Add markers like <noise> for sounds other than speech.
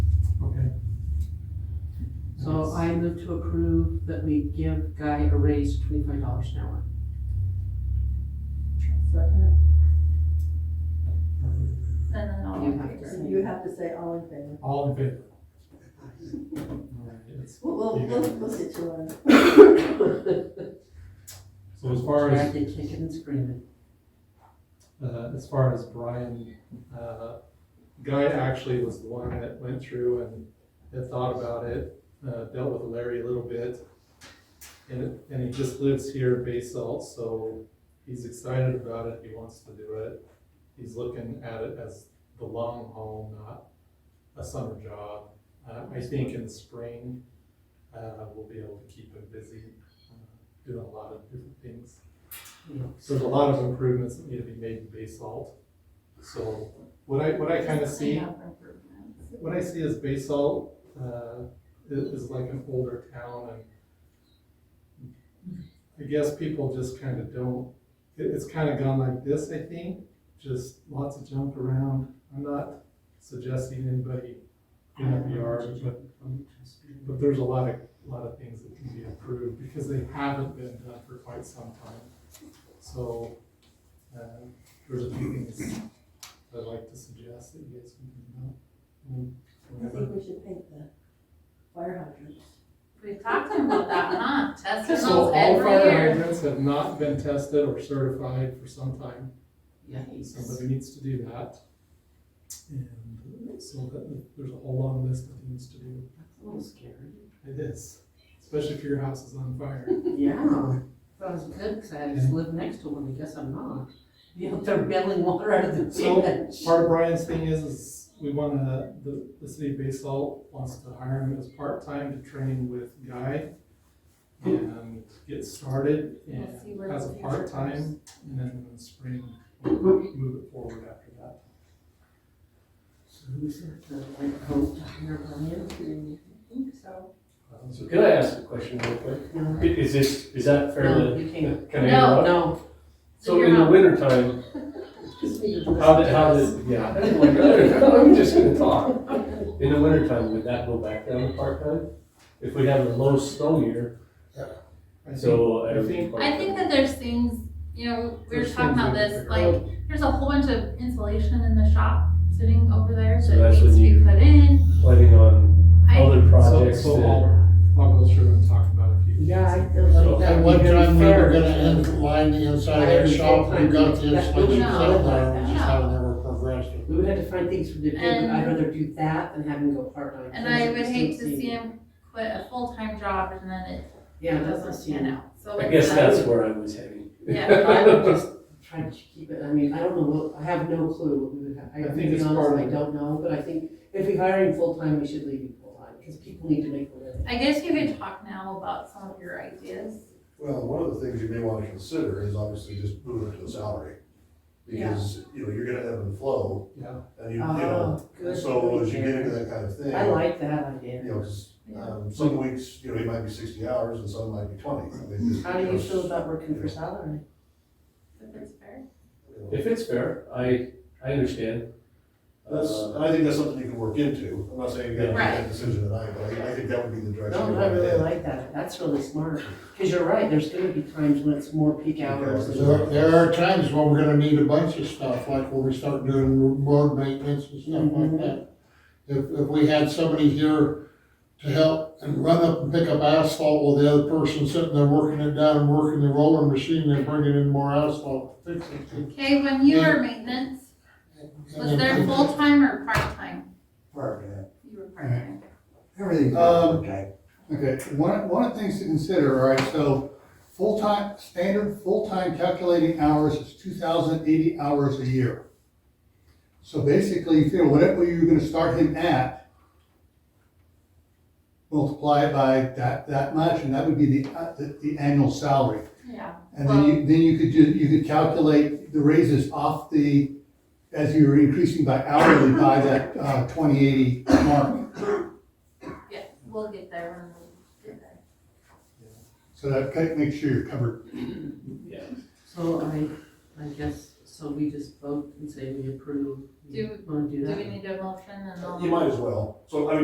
I move to approve that we give Guy a raise of twenty-five dollars an hour. Second. And then all You in have to favor. say- You have to say all in favor. All in favor? All right, it's- We'll, we'll, we'll we'll get you one. So as far as, They kick it and scream uh, as far as Brian, uh, Guy actually was the one that went through and had thought about it, uh, dealt with Larry a little bit. And, it- and he just lives here in Bay Salt, so he's excited about it, he wants to do it. He's looking at it as the long haul, not a summer job. Uh, I think in the spring, uh, we'll be able to keep him busy, uh, doing a lot of different things. it. Yeah. So there's a lot of improvements that need to be made in basalt. So what I, what I kind of Just see, clean up improvements. what I see as basalt, uh, i- is, like an older town and I guess people just kind of don't, it, it's kind of gone like this, I think, just lots of junk around. I'm not suggesting anybody in a VR, but, but there's a lot of, lot of things that can be improved because they haven't been done for quite some time. So, uh, there's a few things I'd like to suggest that you guys can do I about. think we should paint the fire hydrants. We talked about that, huh? Testing So those all every fire year. hydrants have not been tested or certified for some time. Yikes. Somebody needs to do that. And so that, there's a whole long list of things to do. That's a little scary. It is, especially if your house is on fire. Yeah. That was good, because I just live next to one, I guess I'm not. You know, they're bailing water out of the So, ditch. Part of Brian's thing is, is we wanna, the, the city of Basalt wants to hire him as part-time to train with Guy and get started We'll see where and the as a future part-time, and then in the spring, we'll move it forward after that. So who's it, the white coat, Dr. Brian? I think so. Um, So could I ask a question real quick? I- Is this, is that fair No, to? you can't. Oh, Can I No. interrupt? No. So in the wintertime, how did, how did, yeah, I'm like, <laughs> I'm just gonna talk. In the wintertime, would that go back down to part-time? If we have a low snow year, I think, so. I think- I think that there's things, you know, we were There's talking about things we this, can figure like, there's a whole bunch of insulation in the shop sitting over there So that that's needs to when be you- put in. planning on I, other so, projects so that, I'll, I'll go through and talk about a few. things. Yeah, I feel So like that at would one be time, we fair. were gonna in- line the inside of their shop, we got the installation settled there, we just haven't ever progressed it. We would have to find things for the kid, but I'd And- rather do that than have him go part-time. and There's I a would hate to distinct- see him quit a full-time job and then it Yeah, it doesn't doesn't pan seem, out, so. I it's guess like- that's where I was heading. Yeah. I <laughs> would just try to keep it, I mean, I don't know, what- I have no clue what we would have, I, I to think be it's honest, part I of- don't know, but I think if we hire him full-time, we should leave him full-time, because people need to make a living. I guess you could talk now about some of your ideas. Well, one of the things you may want to consider is obviously just moving to a salary. Because, you know, you're gonna ebb and flow, Yeah, and you, you know, Ah, Oh, good. so as you get into that kind of thing. I like that You idea. know, 'cause, um, some weeks, you know, it might be sixty hours and some might be twenty. I mean, just- How do you feel about working for Yeah. salary? If it's fair. you know, If it's fair, I, I understand. That's, Uh, and I think that's something you can work into, I'm not saying you gotta make Right. that decision tonight, but I, I think that would be the direction. No, you I wanna really head. like that, that's really smart, because you're right, there's gonna be times when it's more peak hours. and- Yeah. There, there are times when we're gonna need a bunch of stuff, like when we start doing road maintenance and stuff Mhm. like that. If, if we had somebody here to help and run up and pick up asphalt while the other person's sitting there working it down and working the roller machine and bringing in more asphalt to fix it. Okay, when you Yeah. were maintenance, was And then- there full-time or part-time? Part-time. You were part-time. Everything's Um, part-time. Okay, one, one of the things to consider, all right, so full-time, standard full-time calculating hours is two thousand eighty hours a year. So basically, you figure whatever you're gonna start him at, multiply it by that, that much, and that would be the, uh, the, the annual salary. Yeah. And then you, then you could do, you could calculate the raises off the, as you were increasing by hourly by that, uh, twenty eighty mark. Yeah, we'll get there when we get there. So that kind of makes sure you're covered. Yeah. So I, I guess, so we just vote and say we approve. Do- Wanna do Do that? we need a motion and all? You might as well, so I mean,